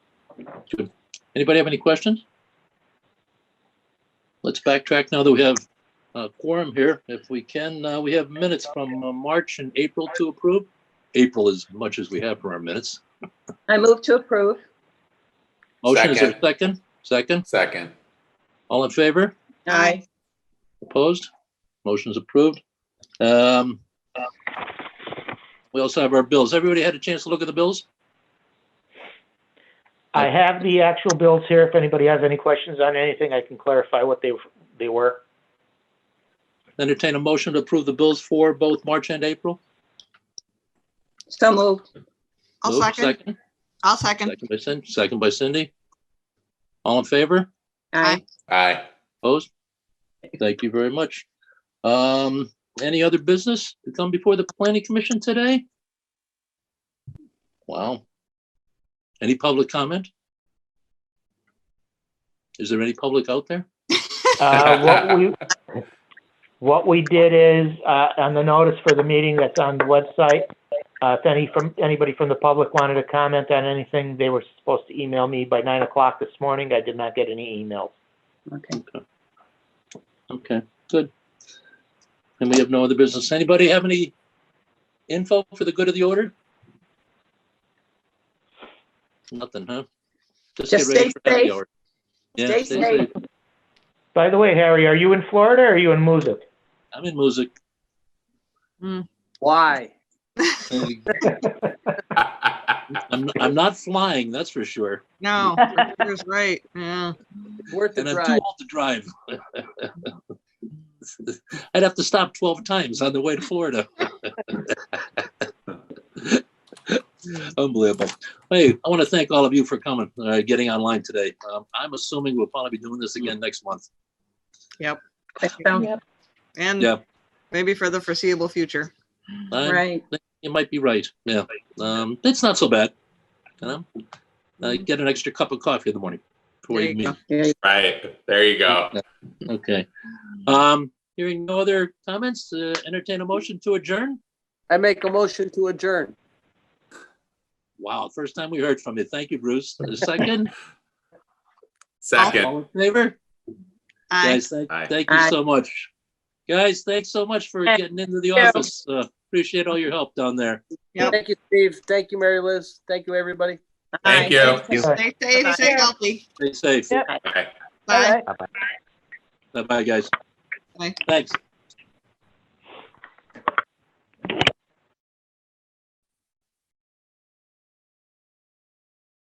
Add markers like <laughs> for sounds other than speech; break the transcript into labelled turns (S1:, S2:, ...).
S1: Anybody have any questions? Let's backtrack now that we have a quorum here. If we can, uh, we have minutes from uh, March and April to approve. April as much as we have for our minutes.
S2: I move to approve.
S1: Motion is there a second? Second?
S3: Second.
S1: All in favor?
S2: Aye.
S1: Opposed? Motion's approved. Um, We also have our bills. Everybody had a chance to look at the bills?
S4: I have the actual bills here. If anybody has any questions on anything, I can clarify what they, they were.
S1: Entertain a motion to approve the bills for both March and April?
S2: So moved.
S5: I'll
S1: Moved,
S5: second. I'll second.
S1: Second by Cindy, second by Cindy. All in favor?
S2: Aye.
S3: Aye. <laughs>
S1: Opposed? Thank you very much. Um, any other business to come before the planning commission today? Wow. Any public comment? Is there any public out there?
S4: Uh, what we, what we did is, uh, on the notice for the meeting that's on the website, uh, if any from, anybody from the public wanted to comment on anything, they were supposed to email me by nine o'clock this morning. I did not get any emails.
S2: Okay.
S1: Okay, good. And we have no other business. Anybody have any info for the good of the order? Nothing, huh? get
S2: Just stay
S1: ready for happy
S2: safe.
S1: hour. Yeah,
S2: Stay safe.
S4: By the way, Harry, are you in Florida or are you in Moosic?
S1: I'm in music.
S6: Why?
S1: <laughs> I'm, I'm not flying, that's for sure.
S5: No, Peter's right. Yeah.
S6: Worth the
S1: And I'm too
S6: drive.
S1: old to drive. <laughs> I'd have to stop 12 times on the way to Florida. <laughs> Unbelievable. Hey, I want to thank all of you for coming, uh, getting online today. Um, I'm assuming we'll probably be doing this again next month.
S2: That sounds
S1: Yeah.
S5: And maybe for the foreseeable future.
S1: I'm-
S2: Right.
S1: You might be right, yeah. Um, it's not so bad, you know? Uh, get an extra cup of coffee in the morning before you
S5: There you
S1: meet.
S5: go.
S2: Yeah.
S3: Right. There you go.
S1: Okay. Um, hearing no other comments, uh, entertain a motion to adjourn?
S6: I make a motion to adjourn.
S1: Wow, first time we heard from you. Thank you, Bruce. A second,
S3: Second.
S1: all in favor?
S5: Aye.
S1: Guys, thank,
S3: Aye.
S1: thank you
S2: Aye.
S1: so much. Guys, thanks so much for
S2: Thank
S1: getting into the
S2: you.
S1: office. Uh, appreciate all your help down there.
S5: Yep.
S6: Thank you, Steve. Thank you, Mary Liz. Thank you, everybody.
S3: Thank you.
S5: Stay safe, stay healthy.
S1: Stay safe.
S4: Yep.
S3: Bye.
S5: Bye.
S1: Bye-bye, guys.
S5: Bye.
S1: Thanks.